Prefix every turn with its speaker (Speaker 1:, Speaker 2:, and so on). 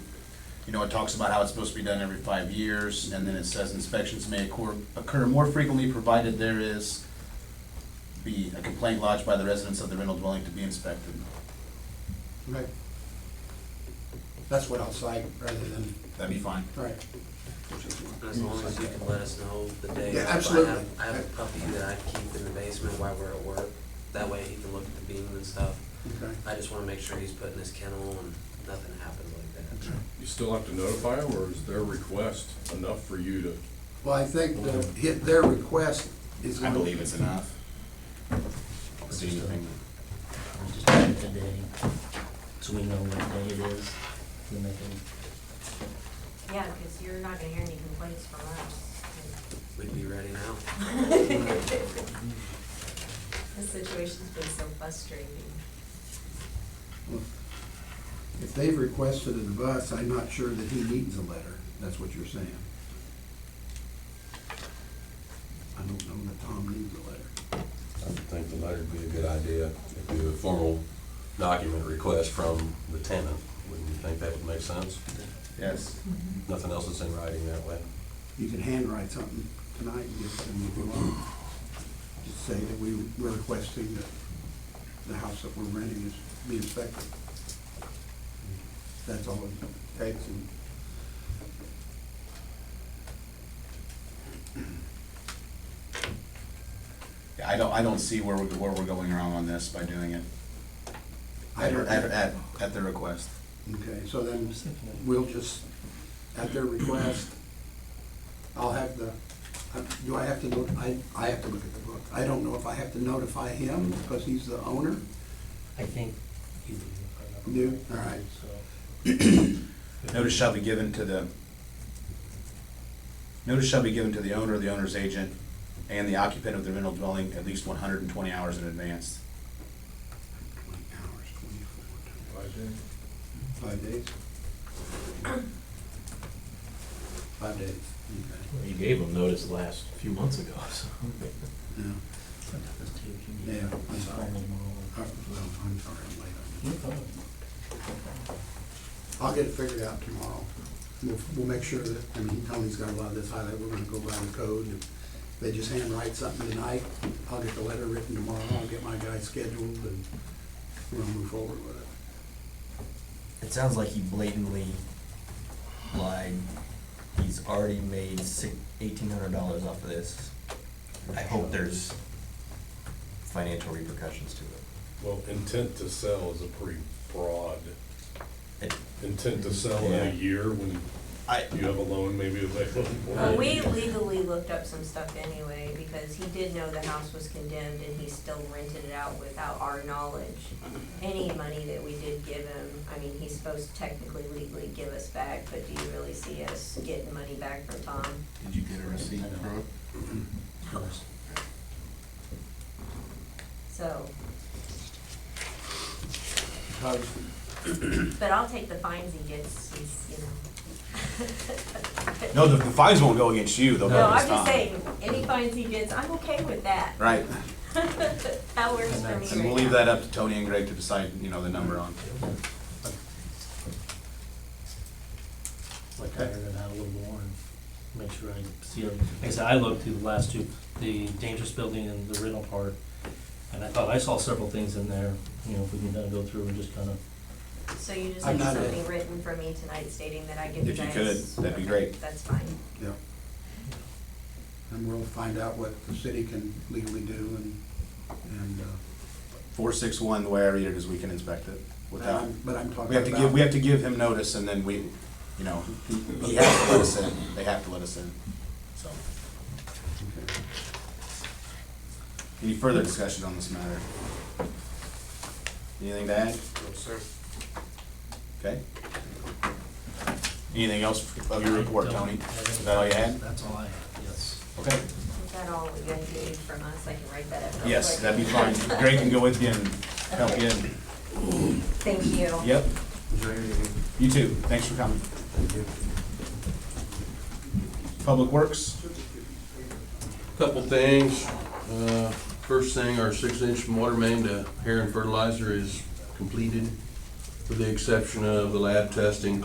Speaker 1: you know, it talks about how it's supposed to be done every five years, and then it says inspections may occur, occur more frequently provided there is be a complaint lodged by the residents of the rental dwelling to be inspected.
Speaker 2: Right. That's what I'll cite rather than,
Speaker 1: That'd be fine.
Speaker 2: right.
Speaker 3: As long as you can let us know the day.
Speaker 2: Yeah,
Speaker 3: If I
Speaker 2: absolutely.
Speaker 3: have, I have a puppy that I keep in the basement while we're at work, that way he can look at the beam and stuff.
Speaker 2: Okay.
Speaker 3: I just wanna make sure he's put in his kennel and nothing happens like that.
Speaker 4: You still have to notify them, or is their request enough for you to?
Speaker 2: Well, I think the, hit- their request is.
Speaker 1: I believe it's enough. Is there anything-
Speaker 5: I'll just add the day, so we know what day it is, we make it.
Speaker 6: Yeah, because you're not gonna hear any complaints from us.
Speaker 3: We'd be ready now.
Speaker 6: This situation's been so frustrating.
Speaker 2: If they've requested it of us, I'm not sure that he needs a letter. That's what you're saying. I don't know that Tom needs a letter.
Speaker 7: I would think the letter would be a good idea, if you do a formal document request from the tenant, wouldn't you think that would make sense?
Speaker 1: Yes.
Speaker 7: Nothing else is in writing that way.
Speaker 2: You can handwrite something tonight and give it to me if you want. Just say that we, we're requesting that the house that we're renting is be inspected. That's all it takes and
Speaker 1: Yeah, I don't, I don't see where we're, where we're going wrong on this by doing it.
Speaker 2: I
Speaker 1: At,
Speaker 2: don't.
Speaker 1: at, at, at their request.
Speaker 2: Okay, so then we'll just, at their request, I'll have the, uh, do I have to look, I, I have to look at the book. I don't know if I have to notify him because he's the owner.
Speaker 5: I think you do.
Speaker 2: Do? All right.
Speaker 5: So,
Speaker 1: Notice shall be given to the, notice shall be given to the owner, the owner's agent, and the occupant of the rental dwelling at least one hundred and twenty hours in advance.
Speaker 2: Twenty hours, twenty-four times. Five days? Five days, okay.
Speaker 8: You gave them notice last few months ago, so.
Speaker 2: Yeah,
Speaker 5: sometimes too, if you need.
Speaker 2: yeah, I'm sorry.
Speaker 5: informal moral.
Speaker 2: Uh, Well, I'm sorry, I'm late on this.
Speaker 5: You're fine.
Speaker 2: I'll get it figured out tomorrow. We'll, we'll make sure that, I mean, Tony's got a lot of this highlight, we're gonna go by the code. If they just handwrite something tonight, I'll get the letter written tomorrow, I'll get my guy scheduled, and we'll move forward with it.
Speaker 5: It sounds like he blatantly lied. He's already made eighteen hundred dollars off of this. I hope there's financial repercussions to it.
Speaker 4: Well, intent to sell is a pretty broad,
Speaker 5: It-
Speaker 4: intent to sell in
Speaker 5: Yeah.
Speaker 4: a year when
Speaker 5: I,
Speaker 4: you have a loan maybe available.
Speaker 6: Well, we legally looked up some stuff anyway, because he did know the house was condemned and he still rented it out without our knowledge. Any money that we did give him, I mean, he's supposed to technically legally give us back, but do you really see us getting money back from Tom?
Speaker 1: Did you get a receipt from it?
Speaker 6: So,
Speaker 2: Todd,
Speaker 6: but I'll take the fines he gets, he's, you know.
Speaker 1: No, the, the fines won't go against you, they'll
Speaker 6: No,
Speaker 1: go
Speaker 6: I'm
Speaker 1: against Tom.
Speaker 6: just saying, any fines he gets, I'm okay with that.
Speaker 1: Right,
Speaker 6: That works for me
Speaker 1: and we'll
Speaker 6: right
Speaker 1: leave
Speaker 6: now.
Speaker 1: that up to Tony and Greg to decide, you know, the number on.
Speaker 5: like iron it out a little more and make sure I see everything. Like I said, I looked through the last two, the dangerous building and the rental part, and I thought I saw several things in there, you know, if we can kind of go through and just kind of
Speaker 6: So you just
Speaker 2: I'm
Speaker 6: need
Speaker 2: not a-
Speaker 6: something written from me tonight stating that I give you
Speaker 1: If you
Speaker 6: guys.
Speaker 1: could, that'd be
Speaker 6: Okay,
Speaker 1: great.
Speaker 6: That's fine.
Speaker 2: yeah. And we'll find out what the city can legally do and, and, uh,
Speaker 1: Four, six, one, the way I read it is we can inspect it
Speaker 2: but
Speaker 1: without,
Speaker 2: I'm, but I'm talking
Speaker 1: we
Speaker 2: about.
Speaker 1: have to give, we have to give him notice and then we, you know, he has to let us in, they have to let us in, so.
Speaker 2: Okay.
Speaker 1: Any further discussion on this matter? Anything to add?
Speaker 3: No, sir.
Speaker 1: Okay. Anything else of your report, Tony? Is that all you had?
Speaker 8: That's all I have, yes.
Speaker 1: Okay.
Speaker 6: Is that all you guys need from us? I can write that up real
Speaker 1: Yes,
Speaker 6: quick.
Speaker 1: that'd be fine. Greg can go with you and help you in.
Speaker 6: Thank you.
Speaker 1: Yep. You too. Thanks for coming. Public Works?
Speaker 7: Couple things. Uh, First thing, our six-inch water main to Heron Fertilizer is completed, with the exception of the lab testing